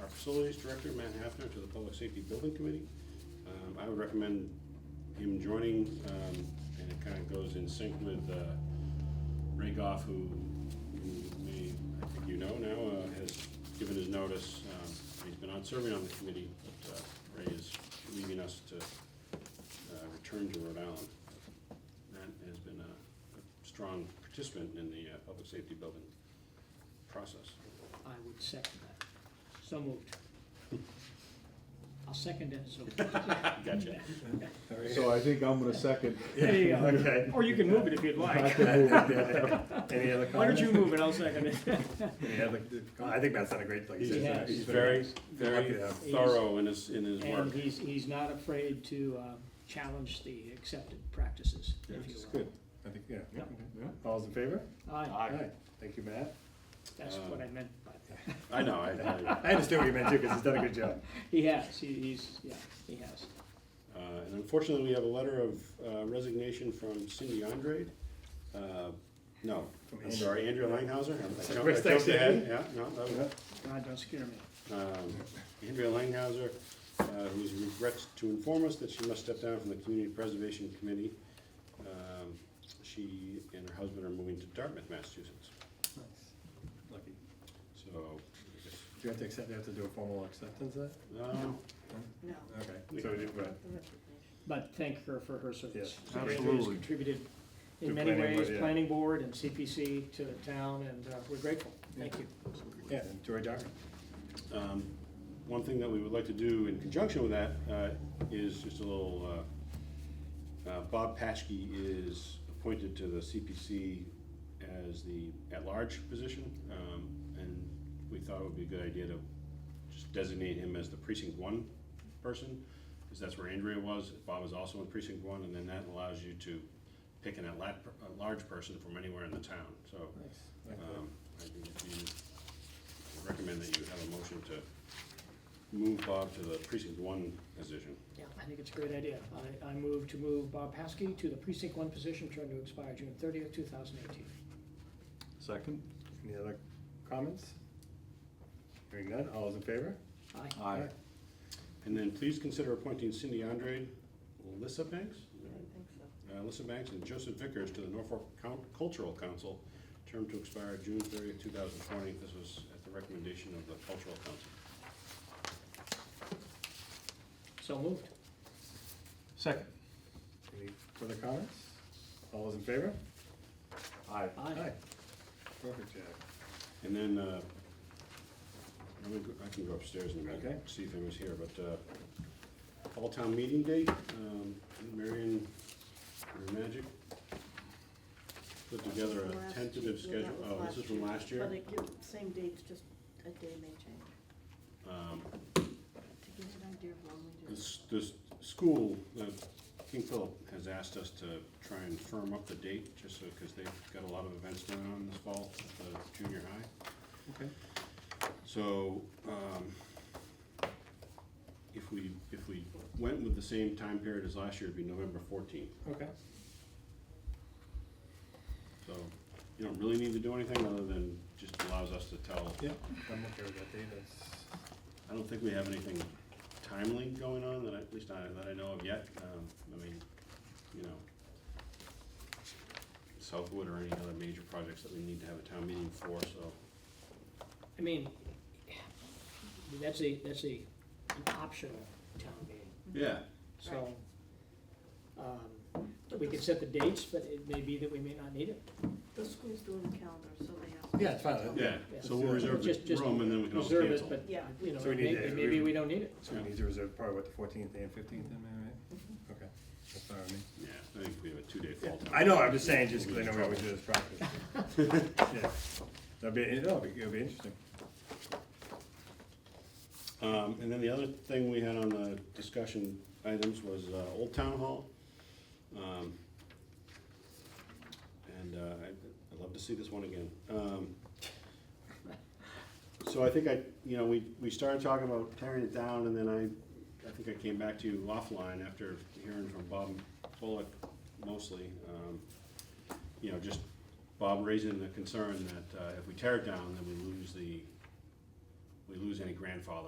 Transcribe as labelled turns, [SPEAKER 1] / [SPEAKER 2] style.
[SPEAKER 1] our facilities director, Matt Hafner, to the Public Safety Building Committee. Um, I would recommend him joining, um, and it kind of goes in sync with, uh, Ray Goff, who you may, I think you know now, uh, has given his notice. Um, He's been on serving on the committee, but, uh, Ray is leaving us to, uh, return to Rhode Island. Matt has been a a strong participant in the, uh, public safety building process.
[SPEAKER 2] I would second that. So moved. I'll second it, so.
[SPEAKER 1] Gotcha.
[SPEAKER 3] So I think I'm gonna second.
[SPEAKER 2] There you go.
[SPEAKER 4] Okay.
[SPEAKER 2] Or you can move it if you'd
[SPEAKER 3] I
[SPEAKER 2] like.
[SPEAKER 3] can move it, yeah.
[SPEAKER 4] Any other
[SPEAKER 2] Why don't
[SPEAKER 4] comments?
[SPEAKER 2] you move it, I'll second it.
[SPEAKER 4] Any other, I think Matt's done a great, like you
[SPEAKER 2] He
[SPEAKER 4] said.
[SPEAKER 2] has.
[SPEAKER 1] He's very,
[SPEAKER 4] Lucky
[SPEAKER 1] very
[SPEAKER 4] to have him.
[SPEAKER 1] thorough in his, in his
[SPEAKER 2] And
[SPEAKER 1] work.
[SPEAKER 2] he's, he's not afraid to uh, challenge the accepted practices, if you will.
[SPEAKER 4] It's good. Uh, I think, yeah.
[SPEAKER 2] Yep.
[SPEAKER 4] Yeah. All's in favor?
[SPEAKER 2] Aye,
[SPEAKER 4] Aye. Thank you, Matt.
[SPEAKER 2] that's what I meant by that.
[SPEAKER 1] I know, I, I,
[SPEAKER 4] I understand what you meant too, because he's done a good job.
[SPEAKER 2] He has, he- he's, yeah, he has.
[SPEAKER 1] Uh, And unfortunately, we have a letter of uh, resignation from Cindy Andrade. Uh, No,
[SPEAKER 4] From
[SPEAKER 1] I'm sorry, Andrea Langhauser. I jumped- I
[SPEAKER 4] First
[SPEAKER 1] jumped
[SPEAKER 4] thing.
[SPEAKER 1] ahead. Yeah, no, that was-
[SPEAKER 2] God, don't scare me.
[SPEAKER 1] um, Andrea Langhauser, uh, who regrets to inform us that she must step down from the Community Preservation Committee. Um, She and her husband are moving to Dartmouth, Massachusetts.
[SPEAKER 4] Lucky.
[SPEAKER 1] So, I guess,
[SPEAKER 4] Do you have to accept, you have to do a formal acceptance of
[SPEAKER 1] um,
[SPEAKER 5] No.
[SPEAKER 4] that? Okay. So we did, right.
[SPEAKER 2] But thank her for her service.
[SPEAKER 4] Yes,
[SPEAKER 2] She has
[SPEAKER 3] absolutely.
[SPEAKER 2] Contributed
[SPEAKER 4] To
[SPEAKER 2] in many
[SPEAKER 4] planning board,
[SPEAKER 2] ways,
[SPEAKER 4] yeah.
[SPEAKER 2] planning board and CPC to the town, and uh, we're grateful. Thank you.
[SPEAKER 4] Yeah, and Joy Docker.
[SPEAKER 1] Um, One thing that we would like to do in conjunction with that uh, is just a little, uh, uh, Bob Paschke is appointed to the CPC as the at-large position, um, and we thought it would be a good idea to just designate him as the precinct one person, because that's where Andrea was, Bob is also in precinct one, and then that allows you to pick an at-large, at-large person from anywhere in the town, so.
[SPEAKER 4] Like, uh,
[SPEAKER 1] Um, I think you recommend that you have a motion to move Bob to the precinct one position.
[SPEAKER 2] Yeah, I think it's a great idea. I, I move to move Bob Paskey to the precinct one position, term to expire June thirtieth, two thousand eighteen.
[SPEAKER 3] Second?
[SPEAKER 4] Any other comments? Hearing none, all those in favor?
[SPEAKER 2] Aye.
[SPEAKER 3] Aye.
[SPEAKER 1] And then please consider appointing Cindy Andrade, Alyssa Banks,
[SPEAKER 5] I don't think so.
[SPEAKER 1] uh, Alyssa Banks and Joseph Vickers to the Norfolk Coun- Cultural Council, term to expire June thirtieth, two thousand twenty. This was at the recommendation of the Cultural Council.
[SPEAKER 2] So moved.
[SPEAKER 3] Second.
[SPEAKER 4] Any further comments? All those in favor?
[SPEAKER 3] Aye.
[SPEAKER 2] Aye.
[SPEAKER 4] Perfect, Jack.
[SPEAKER 1] And then, uh, I'm gonna go- I can go upstairs in a minute,
[SPEAKER 4] Okay.
[SPEAKER 1] and see if anyone's here, but, uh, fall town meeting date, um, Marion or Magic put together
[SPEAKER 5] From
[SPEAKER 1] a
[SPEAKER 5] last
[SPEAKER 1] tentative
[SPEAKER 5] year. Yeah,
[SPEAKER 1] schedule,
[SPEAKER 5] that
[SPEAKER 1] oh, this is from last
[SPEAKER 5] But
[SPEAKER 1] year?
[SPEAKER 5] it gives, same dates, just a day may change,
[SPEAKER 1] Um,
[SPEAKER 5] to give you an idea of when we do. it.
[SPEAKER 1] This, this school, uh, King Philip has asked us to try and firm up the date, just so, because they've got a lot of events going on this fall at the junior high.
[SPEAKER 4] Okay.
[SPEAKER 1] So, um, if we, if we went with the same time period as last year, it'd be November fourteenth.
[SPEAKER 4] Okay.
[SPEAKER 1] So, you don't really need to do anything other than just allows us to tell.
[SPEAKER 4] Yeah, I'm okay with that date, that's.
[SPEAKER 1] I don't think we have anything timely going on that I, at least I, that I know of yet. Um, I mean, you know, Southwood or any other major projects that we need to have a town meeting for, so.
[SPEAKER 2] I mean, that's a, that's a, an optional town meeting,
[SPEAKER 1] Yeah,
[SPEAKER 2] so. um, We could set the dates, but it may be that we may not need it.
[SPEAKER 5] The school's doing the calendar, so they have.
[SPEAKER 4] Yeah, it's fine.
[SPEAKER 1] yeah, so we'll
[SPEAKER 4] Let's do it.
[SPEAKER 1] reserve
[SPEAKER 2] Just-
[SPEAKER 1] the
[SPEAKER 2] just
[SPEAKER 1] room and then we can always
[SPEAKER 2] Reserve it,
[SPEAKER 1] cancel.
[SPEAKER 2] but,
[SPEAKER 5] Yeah.
[SPEAKER 2] you know,
[SPEAKER 4] So we need
[SPEAKER 2] may-
[SPEAKER 4] to-
[SPEAKER 2] maybe we don't need it.
[SPEAKER 4] So we need to reserve probably what, the fourteenth and fifteenth, am I right? Okay, that's fine with me.
[SPEAKER 1] Yeah, I think we have a two-day fall town.
[SPEAKER 4] I know, I'm just saying, just because I know we always do this practice. Yeah, That'd be, it'll be, it'll be interesting.
[SPEAKER 1] Um, and then the other thing we had on the discussion items was, uh, Old Town Hall. Um, and, uh, I'd, I'd love to see this one again. Um, so I think I, you know, we, we started talking about tearing it down and then I, I think I came back to you offline after hearing from Bob Bullock mostly. Um, you know, just Bob raising the concern that, uh, if we tear it down, then we lose the, we lose any grandfather